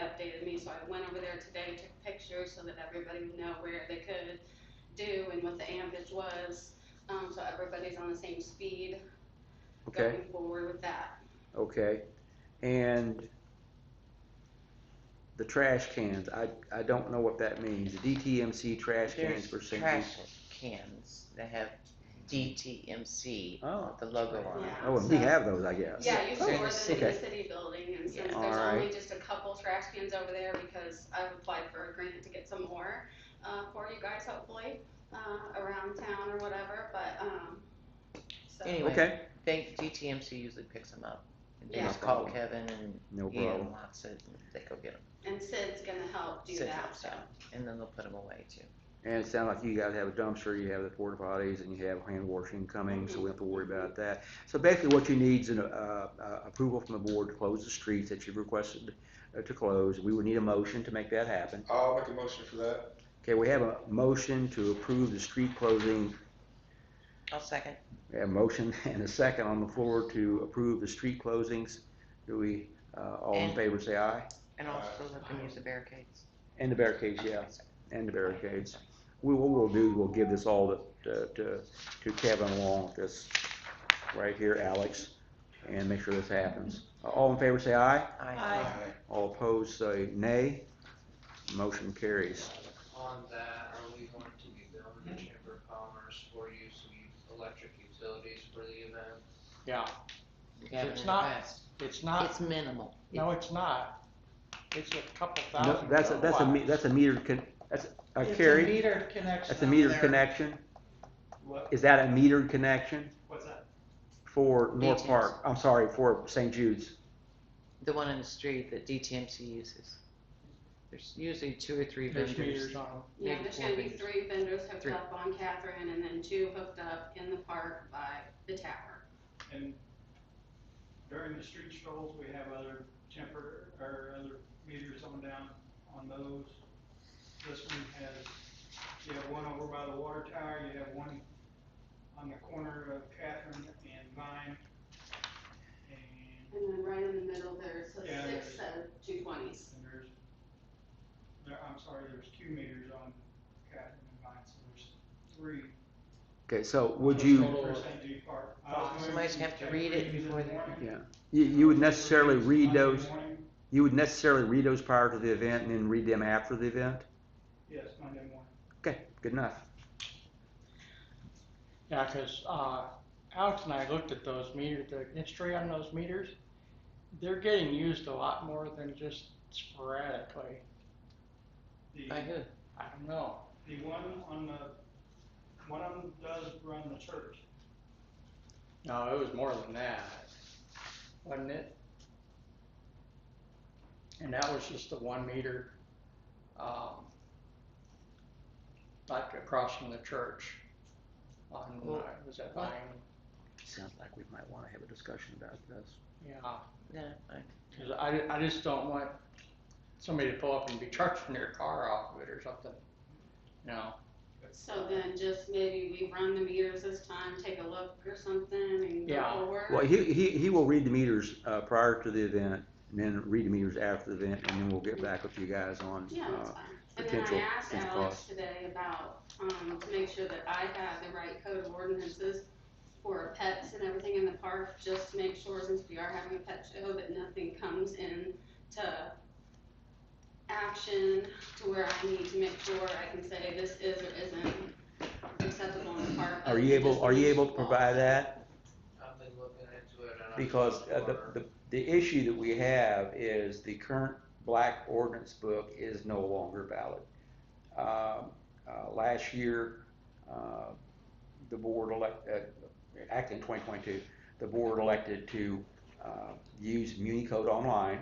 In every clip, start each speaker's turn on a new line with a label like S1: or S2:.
S1: updated me, so I went over there today, took pictures so that everybody would know where they could do and what the ambage was, um, so everybody's on the same speed
S2: Okay,
S1: going forward with that.
S2: okay. And the trash cans, I, I don't know what that means. The DTMC trash cans
S3: There's
S2: for St.
S3: trash
S2: Pete.
S3: cans that have DTMC,
S2: Oh,
S3: the logo on it.
S1: Yeah.
S2: oh, and we
S1: So-
S2: have those, I guess.
S1: Yeah, you
S3: Oh,
S1: can order them in the
S2: okay.
S1: city building, and since
S3: Yeah.
S1: there's only
S2: Alright.
S1: just a couple trash cans over there, because I've applied for a grant to get some more, uh, for you guys hopefully, uh, around town or whatever, but, um, so.
S3: Anyway.
S2: Okay,
S3: Think DTMC usually picks them up. And they
S1: Yeah.
S3: just call Kevin and
S2: no
S3: he
S2: problem.
S3: unlocks it and they go get them.
S1: And Sid's gonna help do
S3: Sit
S1: that,
S3: down,
S1: so.
S3: so. And then they'll put them away too.
S2: And it sounds like you guys have a dumpster, you have the porta potties, and you have hand washing coming, so we don't have to worry about that. So basically, what you need is an, uh, uh, approval from the board to close the streets that you've requested uh, to close. We would need a motion to make that happen.
S4: I'll make a motion for that.
S2: Okay, we have a motion to approve the street closing
S3: I'll second.
S2: We have A motion and a second on the floor to approve the street closings. Do we, uh, all in
S3: And-
S2: favor say aye?
S3: And
S4: Uh,
S3: also let them use the barricades.
S2: And the barricades,
S3: Okay,
S2: yeah,
S3: sorry.
S2: and the barricades. We, what we'll do, we'll give this all to- to, to, to Kevin along with this, right here, Alex, and make sure this happens. All in favor say aye,
S3: Aye.
S2: all opposed say nay. Motion carries.
S5: On that, are we going to be building a chamber of commerce for use of electric utilities for the event?
S6: Yeah,
S3: Kevin
S6: It's not-
S3: request.
S6: it's not,
S3: It's minimal.
S6: no, it's not. It's a couple
S2: No,
S6: thousand.
S2: that's a, that's a, me-
S6: kilowatts.
S2: that's a meter con, that's a
S6: It's
S2: carry,
S6: meter connection.
S2: that's a
S6: on
S2: meter
S6: there.
S2: connection.
S6: What-
S2: Is that a metered connection?
S6: What's that?
S2: For North
S3: DTMC.
S2: Park, I'm sorry, for St. Jude's.
S3: The one in the street that DTMC uses. There's usually two or three
S6: There's
S3: vendors.
S6: meters on them.
S1: Yeah,
S3: Maybe
S1: there's
S3: four
S1: gonna be
S3: vendors.
S1: three vendors hooked
S3: Three.
S1: up on Catherine, and then two hooked up in the park by the tower.
S7: And during the street strolls, we have other temper, or other meters on down on those. This one has, you have one over by the water tower, you have one on the corner of Catherine and Vine. And
S1: And then right in the middle, there's a
S7: Yeah,
S1: six of two twenties.
S7: and there's, there, I'm sorry, there's two meters on Catherine and Vine, so there's three.
S2: Okay, so would
S7: So
S2: you,
S7: For St. Jude Park. I was going
S3: Somebody's
S7: to
S3: have to
S7: take
S3: read it
S7: these in
S3: before
S7: the
S3: they-
S7: morning.
S2: yeah, you, you would
S7: Those
S2: necessarily
S7: three
S2: read
S7: Monday
S2: those,
S7: morning.
S2: you would necessarily read those prior to the event and then read them after the event?
S7: Yes, Monday morning.
S2: Okay, good enough.
S6: Yeah, 'cause, uh, Alex and I looked at those meters, the history on those meters. They're getting used a lot more than just sporadically.
S7: The-
S3: By who?
S6: I don't know.
S7: The one on the, one of them does run the church.
S6: No, it was more than that, wasn't it? And that was just the one meter, um, like across from the church on,
S3: Well,
S6: uh, was that
S3: what?
S6: Vine?
S2: Sounds like we might wanna have a discussion about this.
S6: Yeah,
S3: No, I,
S6: 'cause I, I just don't want somebody to pull up and be charging their car off of it or something, you know?
S1: So then just maybe we run the meters this time, take a look or something and go
S6: Yeah.
S1: forward.
S2: Well, he, he, he will read the meters, uh, prior to the event and then read the meters after the event and then we'll get back with you guys on,
S1: Yeah, that's
S2: uh,
S1: fine. And then I
S2: potential-
S1: asked
S2: potential
S1: Alex
S2: cost.
S1: today about, um, to make sure that I had the right code of ordinances for pets and everything in the park, just to make sure since we are having a pet show that nothing comes in to action to where I need to make sure I can say this is or isn't acceptable in the park.
S2: Are you able, are you able to provide that?
S5: I've been looking into it and I'm.
S2: Because uh,
S5: not sure.
S2: the, the, the issue that we have is the current black ordinance book is no longer valid. Um, uh, Last year, uh, the board elect, uh, acting twenty twenty-two, the board elected to uh, use Muni Code Online.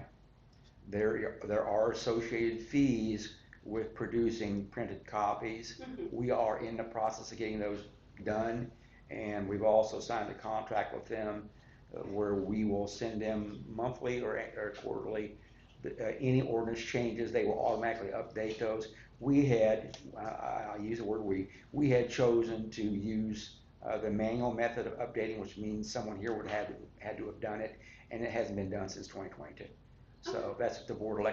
S2: There, there are associated fees with producing printed copies.
S1: Mhm.
S2: We are in the process of getting those done, and we've also signed a contract with them uh, where we will send them monthly or, or quarterly, the- uh, any ordinance changes, they will automatically update those. We had, I- I, I'll use the word we, we had chosen to use, uh, the manual method of updating, which means someone here would have, had to have done it, and it hasn't been done since twenty twenty-two. So that's what the board elected